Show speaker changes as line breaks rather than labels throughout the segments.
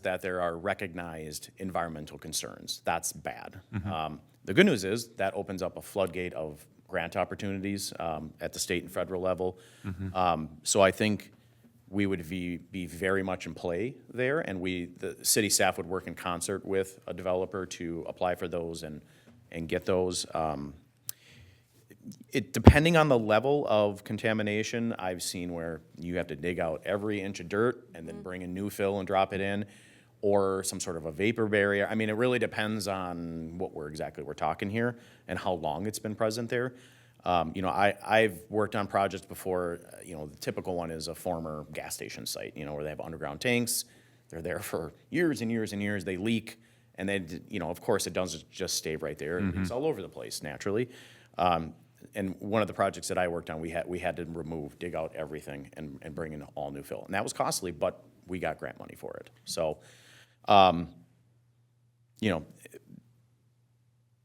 that there are recognized environmental concerns. That's bad. Um, The good news is that opens up a floodgate of grant opportunities um, at the state and federal level. Um, So I think we would be, be very much in play there, and we, the city staff would work in concert with a developer to apply for those and, and get those. Um, it, depending on the level of contamination, I've seen where you have to dig out every inch of dirt and then bring a new fill and drop it in, or some sort of a vapor barrier. I mean, it really depends on what we're exactly we're talking here and how long it's been present there. Um, you know, I, I've worked on projects before, uh, you know, the typical one is a former gas station site, you know, where they have underground tanks. They're there for years and years and years. They leak. And then, you know, of course, it doesn't just stay right there. It's all over the place naturally. Um, and one of the projects that I worked on, we had, we had to remove, dig out everything and, and bring in all new fill. And that was costly, but we got grant money for it. So, um, you know,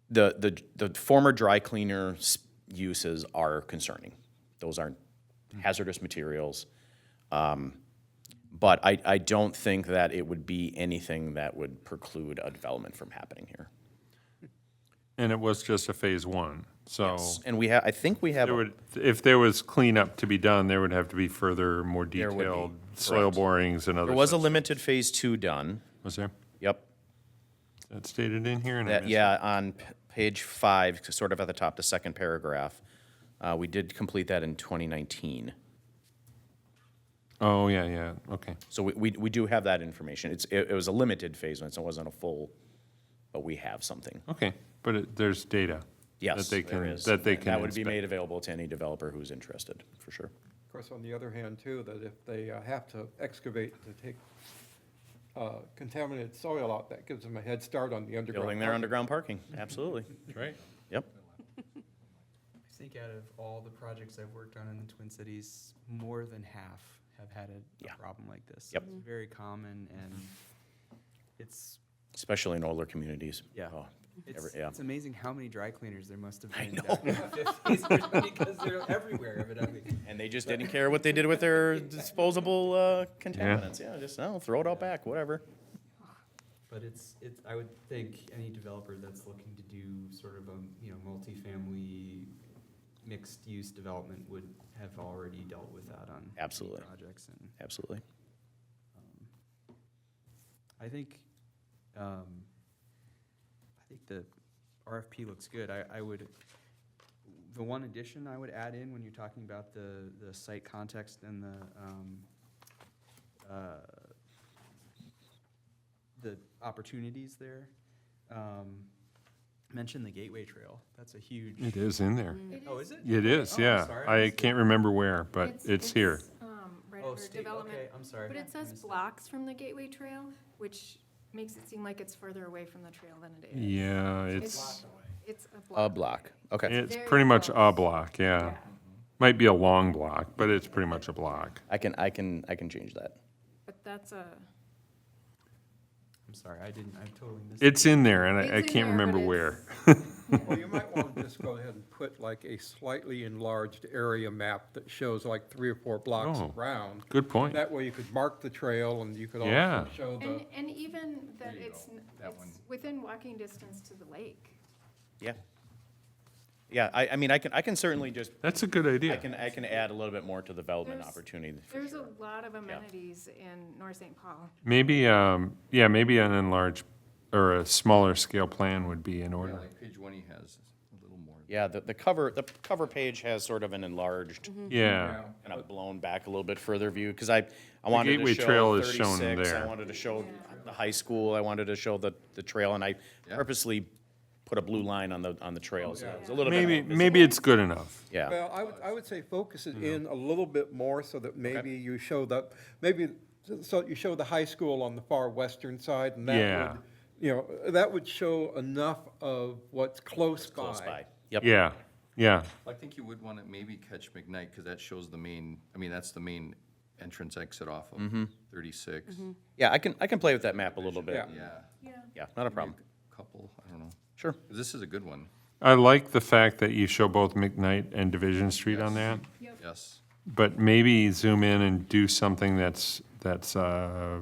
the, the, the former dry cleaner s- uses are concerning. Those aren't
Hmm.
hazardous materials. Um, but I, I don't think that it would be anything that would preclude a development from happening here.
And it was just a phase one, so
And we have, I think we have.
Oh. there would, if there was cleanup to be done, there would have to be further, more
would be,
detailed soil borings and other
There was a
stuff.
limited phase two done.
Was there?
Yep.
Is That stated in here and I
That,
missed it?
yeah, on p- page five, c- sort of at the top, the second paragraph. Uh, we did complete that in 2019.
Oh, yeah, yeah, okay.
So we, we, we do have that information. It's, it, it was a limited phase one, so it wasn't a full, but we have something.
Okay, but it- there's data.
Yes,
that they
there
can-
is.
That they
and
can.
That would be
inspect.
made available to any developer who's interested, for sure.
Of course, on the other hand, too, that if they uh, have to excavate to take uh, contaminated soil out, that gives them a head start on the underground.
Building their
parking.
underground parking, absolutely.
Right.
Yep.
I think out of all the projects I've worked on in the Twin Cities, more than half have had a, a
Yeah.
problem like this.
Yep.
It's very common and it's
Especially in older communities.
Yeah.
Oh,
it's,
every- yeah.
it's amazing how many dry cleaners there must have been back in the 50s because they're everywhere evidently.
And they just didn't care what they did with their disposable uh, contaminants. Yeah, just, oh, throw it all back, whatever.
But it's it's I would think any developer that's looking to do sort of a you know multifamily mixed use development would have already dealt with that on many
Absolutely.
projects and
Absolutely.
I think, um, I think the RFP looks good. I, I would, the one addition I would add in when you're talking about the, the site context and the, um, uh, the opportunities there, um, mention the Gateway Trail. That's a huge.
It is in there.
Mm-hmm.
Oh, is it?
It is,
Oh, I'm
yeah.
sorry, I
I
missed it.
can't remember where, but it's here.
um, Right
Oh,
under
state,
development.
okay, I'm sorry.
But it
I
says
missed
blocks from the Gateway Trail, which makes it seem like it's further away from the trail than it is.
Yeah, it's,
It's a block.
A block, okay.
it's
very
pretty much a
close.
block, yeah.
Yeah.
Might be a long block, but it's pretty much a block.
I can, I can, I can change that.
But that's a,
I'm sorry, I didn't, I totally missed.
It's in there and I- I
It's
can't
in there, but
remember
it's-
where.
Well, you might want to just go ahead and put like a slightly enlarged area map that shows like three or four blocks
Oh.
around.
Good point.
That way you could mark the trail and you could also
Yeah.
show
and,
the,
and even that it's, n- it's within walking distance to the lake.
Yeah. Yeah, I, I mean, I can, I can certainly just,
That's a good
I
idea.
can, I can add a little bit more to the development
There's-
opportunity. for
There's a
sure.
lot of amenities in North St. Paul.
Maybe, um, yeah, maybe an enlarged or a smaller scale plan would be in order.
Like page one, he has a little more.
Yeah, the, the cover, the cover page has sort of an enlarged,
Mm-hmm.
Yeah,
kind of blown back a little bit further view, because I, I wanted to
Gateway
show
Trail is shown
thirty-six, I
there.
wanted to show the high school, I wanted to show the, the trail, and I
Yeah.
purposely put a blue line on the, on the trail, so it was a little bit.
maybe,
more visible.
maybe it's good enough.
Yeah, Mm-hmm.
well, I would, I would say focus it in a little bit more so that maybe you show the, maybe, so you show the high school on the far western side and that
Yeah.
would, you know, that would show enough of what's close by.
close by, yep.
Yeah, yeah,
I think you would want to maybe catch McKnight, because that shows the main, I mean, that's the main entrance exit off
Mm-hmm.
of thirty-six.
Yeah, I can, I can play with that map a little bit.
Yeah.
Yeah,
Yeah.
Yeah, not a problem,
couple, I don't know.
sure.
'Cause This is a good one,
I like the fact that you show both McKnight and Division Street on that,
yes.
but maybe zoom in and do something that's, that's, uh,